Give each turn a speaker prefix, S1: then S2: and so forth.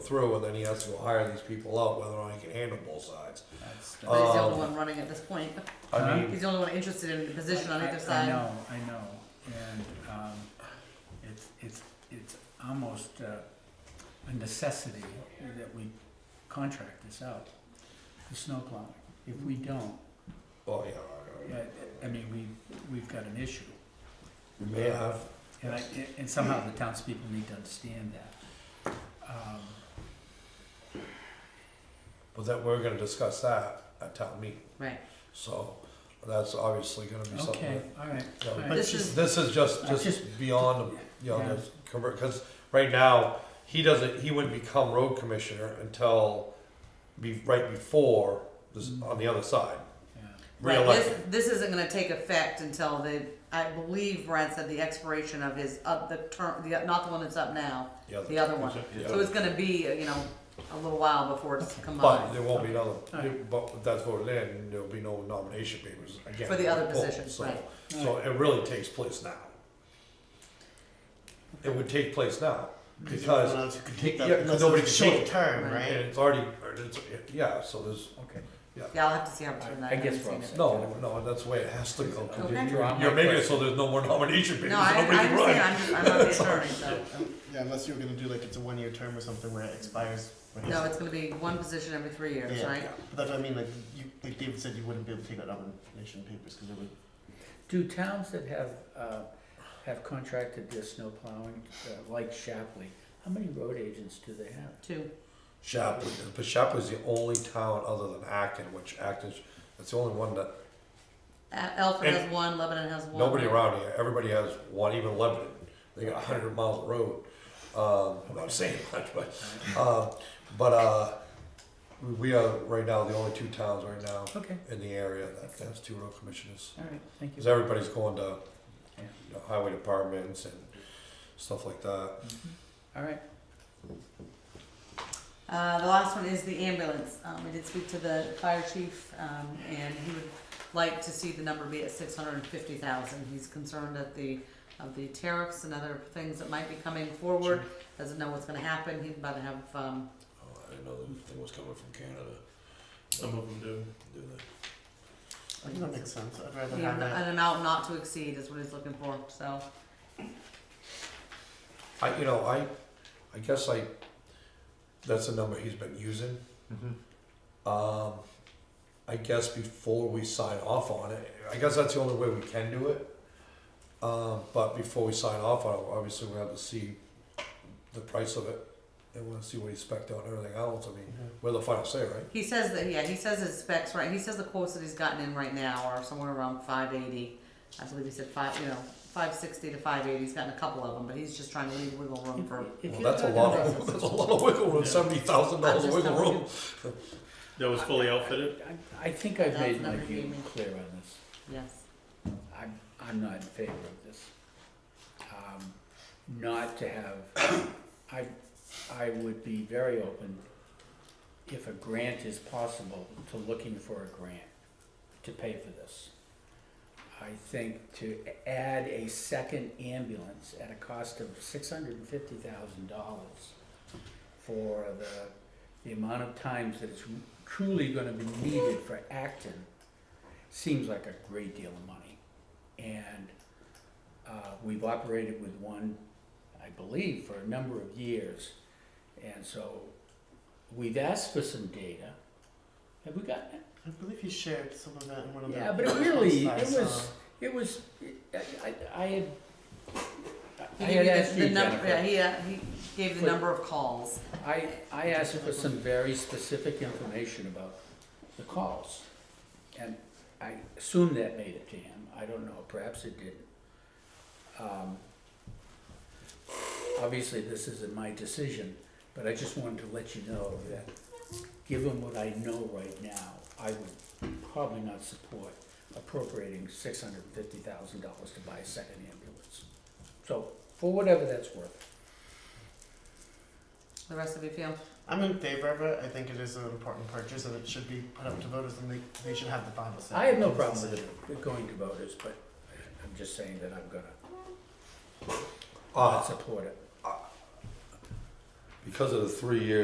S1: through and then he has to go hire these people out whether or not he can handle both sides.
S2: That's-
S1: Uh,
S3: But he's the
S1: Um,
S3: only one running at this point.
S2: Huh?
S1: I mean,
S3: He's the only one interested in the position on
S2: I-
S3: either
S2: I-
S3: side.
S2: I know, I know, and, um, it's, it's, it's almost uh, a necessity that we contract this out, the snow plowing. If we don't,
S1: oh yeah, I-
S2: I, I mean, we, we've got an issue.
S1: we may have.
S2: And I, and somehow the townspeople need to understand that. Um,
S1: But that we're gonna discuss that at town meeting.
S3: Right.
S1: So that's obviously gonna be
S2: Okay,
S1: something.
S2: all right,
S1: that-
S2: all
S1: you know,
S2: right.
S3: This is,
S1: This is just,
S2: I
S1: just
S2: just-
S1: beyond, the- you know,
S2: Yeah.
S1: this cover, cause right now, he doesn't, he wouldn't become road commissioner until be, right before this,
S2: Mm-hmm.
S1: on the other side.
S2: yeah.
S3: right, this,
S1: Reelected.
S3: this isn't gonna take effect until the, I believe Brad said the expiration of his, of the term, the, not the one that's up now, the other one.
S1: Yeah.
S3: So it's gonna be, you know, a little while before it's
S1: But
S3: combined.
S1: there won't be another,
S2: Alright.
S1: but that's voted in, and there'll be no nomination papers again.
S3: For the other
S1: Oh,
S3: position,
S1: so-
S3: right.
S1: So it really takes place now. It would take place now,
S4: Because
S1: because,
S4: else could take
S1: Yeah,
S4: that,
S1: 'cause
S4: because
S1: nobody
S4: it's a
S1: can take
S4: short
S1: it.
S4: term,
S3: Right.
S1: and
S4: right?
S1: it's already, or it's, yeah, so there's,
S5: Okay.
S3: Yeah, I'll have to see how it's done.
S5: I-
S3: that.
S5: I guess
S3: haven't seen
S5: what I'm
S3: it.
S5: saying-
S1: no, no, that's the way it has to go.
S3: Okay.
S5: Draw my
S1: You're making it
S5: question.
S1: so there's no more nomination papers,
S3: No, I, I
S1: nobody can
S3: understand,
S1: run.
S3: I'm, just- I'm not the attorney, so,
S4: Yeah, unless you're gonna do like it's a one year term or something where it expires. when
S3: no,
S4: it's-
S3: it's gonna be one position every three years,
S4: Yeah.
S3: right?
S4: But that's what I mean, like you, like David said, you wouldn't be able to take out nomination papers because it would.
S2: Do towns that have, uh, have contracted their snow plowing, uh, like Shapley, how many road agents do they have?
S3: Two,
S1: Shapley, but Shapley's the only town other than Acton, which Acton's, it's the only one that,
S3: A- Alfred
S1: And-
S3: has one, Lebanon has one.
S1: nobody around here, everybody has one, even Lebanon, they got a hundred miles of road. Um, I'm not saying much, but Uh, but uh, we- we are right now the only two towns right now
S2: Okay,
S1: in the area that has two road commissioners.
S2: all right, thank you.
S1: Because everybody's going to you know, highway departments and stuff like that.
S2: Mm-hmm. All right,
S3: Uh, the last one is the ambulance. Um, we did speak to the fire chief, um, and he would like to see the number be at six hundred and fifty thousand. He's concerned at the, of the tariffs and other things that might be coming forward. Doesn't know what's gonna happen. He's about to have, um,
S1: Oh, I didn't know the thing was coming from Canada.
S6: Some of them do.
S1: Do that.
S4: I think that makes sense. I'd rather
S3: you know,
S4: have that.
S3: an amount not to exceed is what he's looking for, so.
S1: I, you know, I, I guess I, that's the number he's been using. Um, I guess before we sign off on it, I guess that's the only way we can do it. Um, but before we sign off on it, obviously we have to see the price of it and we'll see what he spec'd out and everything else. I mean,
S4: Mhm.
S1: we're the final say, right?
S3: He says that, yeah, he says his specs, right, he says the quotes that he's gotten in right now are somewhere around five eighty. I believe he said five, you know, five sixty to five eighty, he's gotten a couple of them, but he's just trying to leave wiggle room for,
S2: If
S1: Well,
S2: you're
S1: that's a
S2: talking
S1: lot
S2: about-
S1: of, that's a lot of wiggle room,
S6: Yeah.
S1: seventy thousand
S3: I'm
S1: dollars
S3: just
S1: wiggle
S3: telling
S1: room.
S6: That was fully outfitted.
S2: I, I think I've
S3: That's
S2: made my
S3: another
S2: view
S3: human.
S2: clear on this.
S3: yes.
S2: I'm, I'm not in favor of this. Um, Not to have, I, I would be very open, if a grant is possible, to looking for a grant to pay for this. I think to add a second ambulance at a cost of six hundred and fifty thousand dollars for the, the amount of times that it's truly gonna be needed for Acton seems like a great deal of money. And uh, we've operated with one, I believe, for a number of years. And so we've asked for some data. Have we gotten it?
S4: I believe he shared some of that in one of the.
S2: Yeah, but it really,
S4: I
S2: it
S4: saw.
S2: was, it was, I, I- I had, I
S3: He
S2: had
S3: gave
S2: asked
S3: you the-
S2: you,
S3: the number, yeah,
S2: Jennifer.
S3: he, uh, he gave the
S2: Wait.
S3: number of calls.
S2: I, I asked for some very specific information about the calls. And I assume that made it to him, I don't know, perhaps it didn't. Um, Obviously, this isn't my decision, but I just wanted to let you know that, given what I know right now, I would probably not support appropriating six hundred and fifty thousand dollars to buy a second ambulance. So, for whatever that's worth.
S3: The rest of you feel?
S4: I'm in favor of it. I think it is an important purchase and it should be put up to voters and they, they should have the final say.
S2: I have no problem with it going to voters, but I'm just saying that I'm gonna
S1: Uh,
S2: not support it.
S1: Ah, because of the three years.